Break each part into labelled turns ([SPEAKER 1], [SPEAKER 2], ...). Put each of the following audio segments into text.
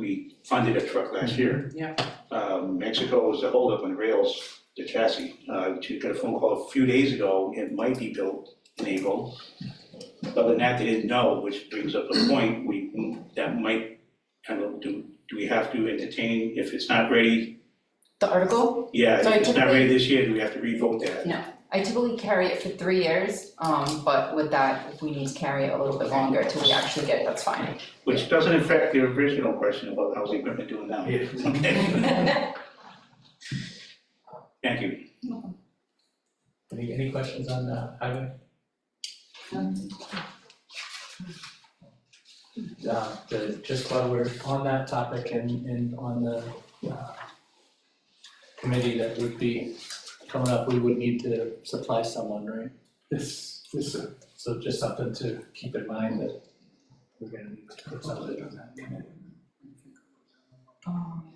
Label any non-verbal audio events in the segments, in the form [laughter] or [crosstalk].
[SPEAKER 1] we funded a truck last year.
[SPEAKER 2] Yeah.
[SPEAKER 1] Um, Mexico was a holdup on rails, the chassis. Uh, we got a phone call a few days ago, it might be built in April. Other than that, they didn't know, which brings up the point, we, that might, kind of, do, do we have to entertain, if it's not ready?
[SPEAKER 3] The article,
[SPEAKER 1] Yeah,
[SPEAKER 3] So I
[SPEAKER 1] if it's not
[SPEAKER 3] typically-
[SPEAKER 1] ready this year, do we have to revoke that?
[SPEAKER 3] I typically carry it for three years, um, but with that, if we need to carry it a little bit longer till we actually get it, that's fine.
[SPEAKER 1] Which doesn't affect the original question about how's the equipment doing now.
[SPEAKER 4] Yeah.
[SPEAKER 1] Okay. Thank you.
[SPEAKER 4] Any, any questions on the highway? Uh, the- just while we're on that topic and, and on the, uh, committee that would be coming up, we would need to supply someone, right? This, this, so just something to keep in mind that we're gonna need to put somebody on that committee.
[SPEAKER 3] Um,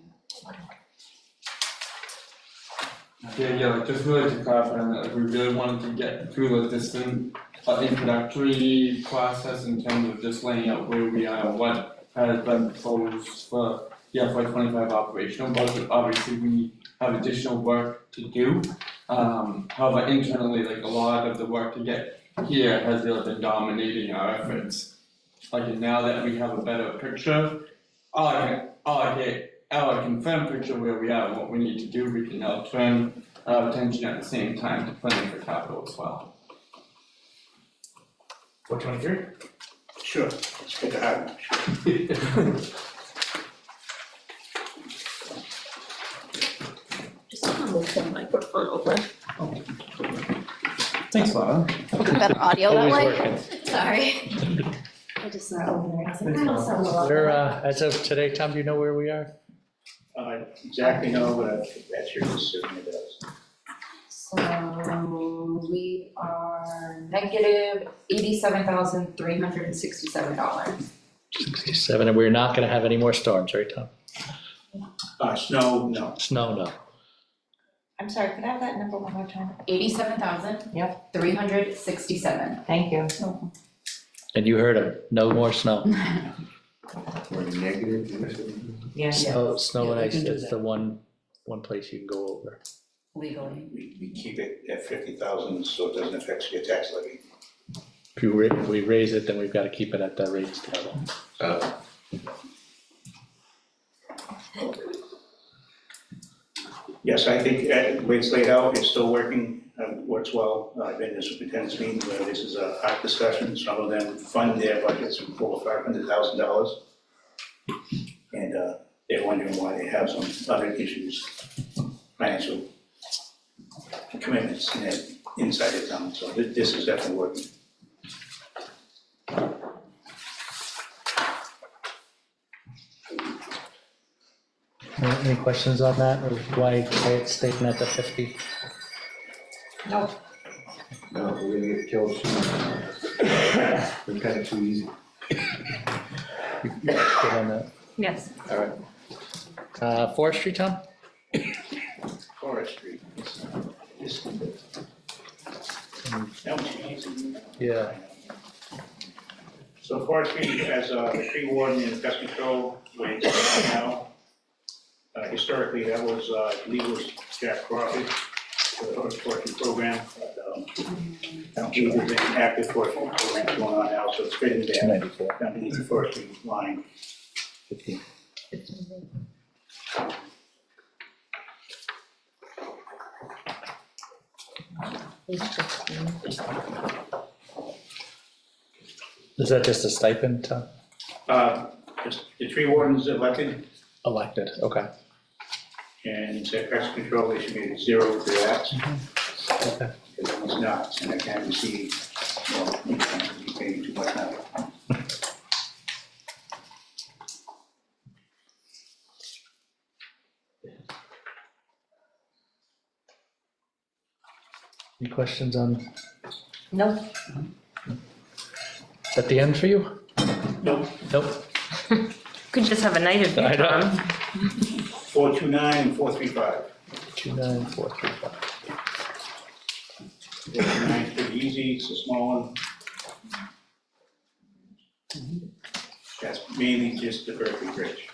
[SPEAKER 5] Yeah, yeah, like just really to clarify on that, like we really wanted to get through like this in uh introductory process in terms of just laying out where we are, what has been proposed for the FY twenty five operational budget, obviously we have additional work to do. Um however, internally, like a lot of the work to get here has really been dominating our efforts. Like now that we have a better picture, all I can, all I can, all I can firm picture where we are and what we need to do, we can now turn uh attention at the same time to planning for capital as well.
[SPEAKER 4] Four twenty-three?
[SPEAKER 1] Sure, let's get to Highland, sure.
[SPEAKER 6] Just gonna move the microphone over.
[SPEAKER 4] Thanks, Laura.
[SPEAKER 6] Better audio that
[SPEAKER 4] Always
[SPEAKER 6] way.
[SPEAKER 4] working.
[SPEAKER 6] Sorry. I just not over. I was like,
[SPEAKER 4] Thanks,
[SPEAKER 6] "I don't
[SPEAKER 4] Mom.
[SPEAKER 6] sound well."
[SPEAKER 4] Where, uh, as of today, Tom, do you know where we are?
[SPEAKER 1] Uh, exactly, no, but I think that's your decision, it does.
[SPEAKER 3] So we are negative eighty-seven thousand three hundred and sixty-seven dollars.
[SPEAKER 4] Seven, and we're not gonna have any more storms, right, Tom?
[SPEAKER 1] Uh, snow, no,
[SPEAKER 4] Snow, no.
[SPEAKER 7] I'm sorry, could I have that number one more time?
[SPEAKER 3] Eighty-seven thousand? Yep. Three hundred sixty-seven.
[SPEAKER 7] Thank you.
[SPEAKER 4] And you heard him, no
[SPEAKER 2] [laughs]
[SPEAKER 4] more snow.
[SPEAKER 8] Or negative.
[SPEAKER 7] Yes.
[SPEAKER 4] Snow, Oh, snow and
[SPEAKER 2] Yeah, we
[SPEAKER 4] ice
[SPEAKER 2] can do
[SPEAKER 4] is
[SPEAKER 2] that.
[SPEAKER 4] the one, one place you can go over.
[SPEAKER 3] Legally.
[SPEAKER 1] we, we keep it at fifty thousand, so it doesn't affect your tax levy.
[SPEAKER 4] If you, ra- if we raise it, then we've gotta keep it at that raised level.
[SPEAKER 1] Yes, I think uh, the way it's laid out, it's still working, uh, works well. Uh, I've been in superintendent's meetings where this is a hot discussion, some of them fund their budgets with four or five hundred thousand dollars. And, uh, they're wondering why they have some other issues, financial commitments in their- inside the town, so thi- this is definitely working.
[SPEAKER 4] Any questions on that, or why why it's stating at the fifty?
[SPEAKER 8] No, we're gonna get
[SPEAKER 2] [laughs]
[SPEAKER 8] killed soon. We're kinda too easy.
[SPEAKER 4] Good on that.
[SPEAKER 6] Yes.
[SPEAKER 8] All right,
[SPEAKER 4] Uh, forestry, Tom?
[SPEAKER 1] Forestry. it's, uh, it's- That was easy.
[SPEAKER 4] Yeah.
[SPEAKER 1] So forestry, as uh, the tree warden and pest control, where it's at now, uh, historically, that was, uh, I believe it was Jack Crawford, for the forest- forestry program. but, um, I don't believe there's any active forestry program going on now, so it's been there,
[SPEAKER 4] ninety-four.
[SPEAKER 1] underneath the forestry line.
[SPEAKER 4] Fifty. Is that just a stipend, Tom?
[SPEAKER 1] Uh, just- The tree warden's elected,
[SPEAKER 4] Elected, okay,
[SPEAKER 1] and it's at pest control, they should be zero for that.
[SPEAKER 4] okay.
[SPEAKER 1] because it was not, and I can't receive, well, you can't be paid too much now.
[SPEAKER 4] Any questions on,
[SPEAKER 7] Nope.
[SPEAKER 4] is that the end for you?
[SPEAKER 1] Nope.
[SPEAKER 4] Nope,
[SPEAKER 6] Could just have a night of
[SPEAKER 4] I
[SPEAKER 6] it,
[SPEAKER 4] know.
[SPEAKER 6] Tom.
[SPEAKER 1] Four two nine and four three five.
[SPEAKER 4] two nine four three five.
[SPEAKER 1] Four two nine is pretty easy, it's a small one. That's mainly just the Berkeley Bridge.